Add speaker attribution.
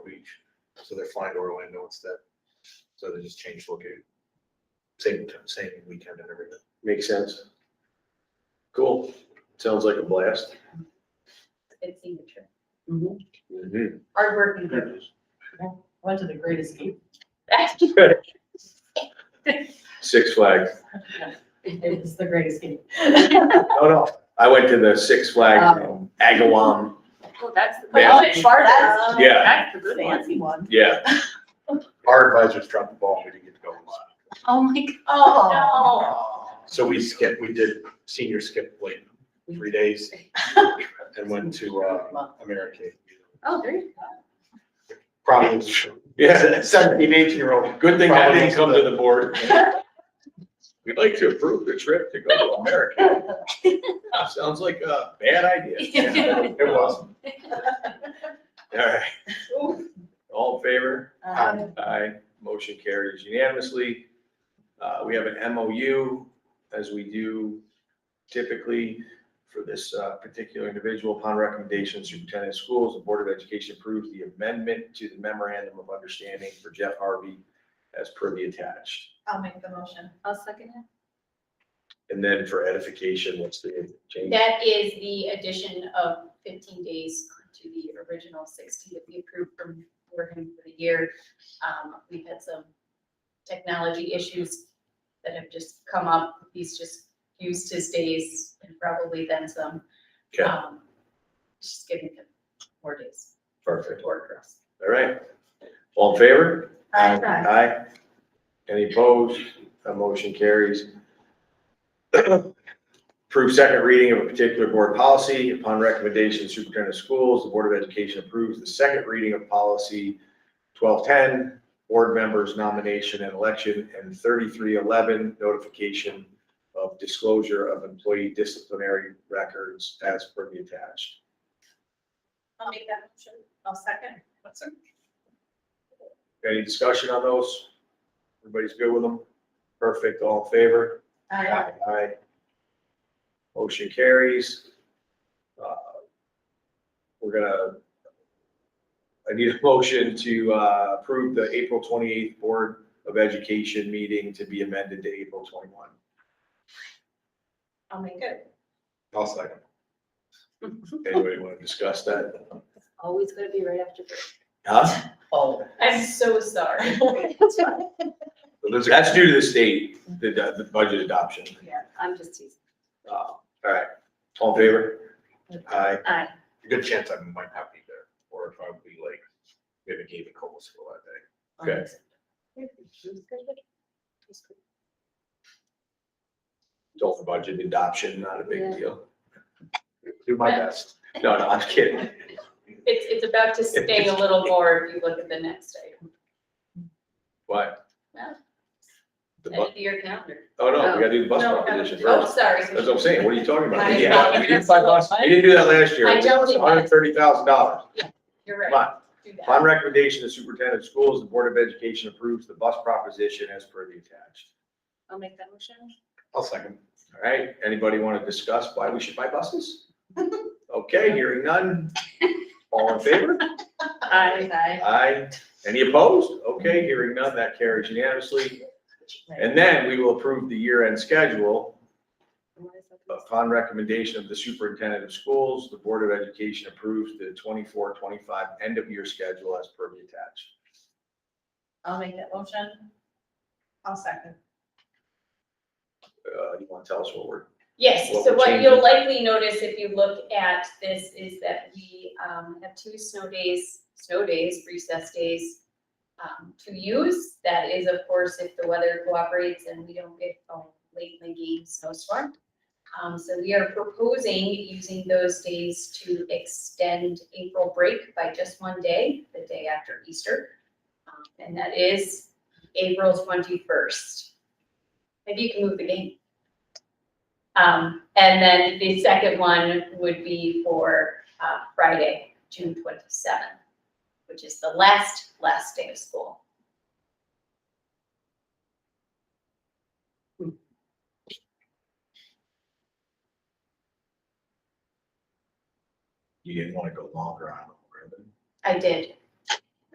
Speaker 1: So they're flying to Orlando instead. So they just changed location. Same time, same weekend and everything.
Speaker 2: Makes sense. Cool. Sounds like a blast.
Speaker 3: It's signature.
Speaker 2: Mm-hmm.
Speaker 3: Hardworking group.
Speaker 4: Went to the Great Escape.
Speaker 2: Six Flags.
Speaker 4: It was the Great Escape.
Speaker 2: No, no. Um, I went to the Six Flags in Agawam.
Speaker 5: Well, that's the.
Speaker 2: Yeah.
Speaker 5: Oh, it's farther.
Speaker 4: That's-
Speaker 2: Yeah,
Speaker 5: That's the good one.
Speaker 4: Fancy one.
Speaker 2: yeah.
Speaker 1: Our advisors dropped the ball. We didn't get to go.
Speaker 5: Oh, my God.
Speaker 4: Oh.
Speaker 5: No.
Speaker 1: So we skipped, we did senior skip late, three days and went to, uh, America.
Speaker 5: Oh, there you
Speaker 1: Probably
Speaker 2: Yeah.
Speaker 1: seventeen, eighteen year old.
Speaker 2: Good thing I didn't come to the board. We'd like to approve the trip to go to America. Sounds like a bad idea.
Speaker 1: It was.
Speaker 2: All right. All in favor?
Speaker 4: Um,
Speaker 2: Aye, motion carries unanimously. Uh, we have an MOU, as we do typically for this, uh, particular individual. Upon recommendation, superintendent of schools, the Board of Education approves the amendment to the memorandum of understanding for Jeff Harvey as per the attached.
Speaker 3: I'll make the motion.
Speaker 5: I'll second it.
Speaker 2: And then for edification, what's the change?
Speaker 5: That is the addition of fifteen days to the original sixty that we approved from working for the year. Um, we've had some technology issues that have just come up. He's just used his days and probably then some.
Speaker 2: Okay.
Speaker 5: Um, Just giving him more days
Speaker 2: Perfect.
Speaker 5: to work for us.
Speaker 2: All right. All in favor?
Speaker 4: Aye.
Speaker 2: Aye. Any opposed? That motion carries. Approve second reading of a particular board policy. Upon recommendation of superintendent of schools, the Board of Education approves the second reading of policy twelve-ten, board members nomination and election, and thirty-three-eleven, notification of disclosure of employee disciplinary records as per the attached.
Speaker 3: I'll make that motion. I'll second. What's it?
Speaker 2: Any discussion on those? Everybody's good with them? Perfect. All in favor?
Speaker 4: Aye.
Speaker 2: Aye. Motion carries. Uh, We're gonna, I need a motion to uh, approve the April twenty-eighth Board of Education meeting to be amended to April twenty-one.
Speaker 3: I'll make it.
Speaker 1: I'll second.
Speaker 2: Anybody want to discuss that?
Speaker 5: Always gonna be right after break.
Speaker 2: Huh?
Speaker 4: Oh.
Speaker 5: I'm so sorry.
Speaker 2: That's due to the state, the, the budget adoption.
Speaker 5: Yeah, I'm just teasing.
Speaker 2: Uh, All right, all in favor? Aye.
Speaker 5: Aye.
Speaker 1: Good chance I might not be there or if I would be like, maybe gave a cold school that day.
Speaker 2: Okay. Don't the budget adoption, not a big
Speaker 5: Yeah.
Speaker 2: deal.
Speaker 1: Do my best.
Speaker 2: No, no, I'm kidding.
Speaker 5: It's, it's about to sting a little more if you look at the next item.
Speaker 2: What?
Speaker 5: No.
Speaker 2: The bu-
Speaker 5: End of the year calendar.
Speaker 2: Oh, no,
Speaker 5: Oh.
Speaker 2: we gotta do the bus
Speaker 5: No, no.
Speaker 2: proposition
Speaker 5: Oh,
Speaker 2: first.
Speaker 5: sorry.
Speaker 2: That's what I'm saying. What are you talking about?
Speaker 5: I-
Speaker 2: We didn't do that- we didn't buy bus- We didn't do that last year.
Speaker 5: I
Speaker 2: It
Speaker 5: don't
Speaker 2: was
Speaker 5: think that-
Speaker 2: hundred and thirty thousand dollars.
Speaker 5: You're
Speaker 2: Come
Speaker 5: right.
Speaker 2: on.
Speaker 5: Do that.
Speaker 2: Upon recommendation of the superintendent of schools, the Board of Education approves the bus proposition as per the attached.
Speaker 5: I'll make that motion.
Speaker 1: I'll second.
Speaker 2: All right, anybody want to discuss why we should buy buses? Okay, hearing none. All in favor?
Speaker 5: Aye.
Speaker 4: Aye.
Speaker 2: Aye. Any opposed? Okay, hearing none, that carries unanimously. And then we will approve the year-end schedule. Upon recommendation of the superintendent of schools, the Board of Education approves the 24-25 end-of-year schedule as per the attached.
Speaker 4: I'll make that motion.
Speaker 3: I'll second.
Speaker 2: Uh, you want to tell us what we're,
Speaker 5: Yes,
Speaker 2: What
Speaker 5: so
Speaker 2: we're
Speaker 5: what
Speaker 2: changing.
Speaker 5: you'll likely notice if you look at this is that we um, have two snow days, snow days, recess days um, to use. That is, of course, if the weather cooperates and we don't get a late in the game snowstorm. Um, So we are proposing using those days to extend April break by just one day, the day after Easter. Um, And that is April 21st. Maybe you can move the game. Um, and then the second one would be for, uh, Friday, June twenty-seventh, which is the last, last day of school.
Speaker 2: you didn't want to go longer on, it, right?
Speaker 5: I did,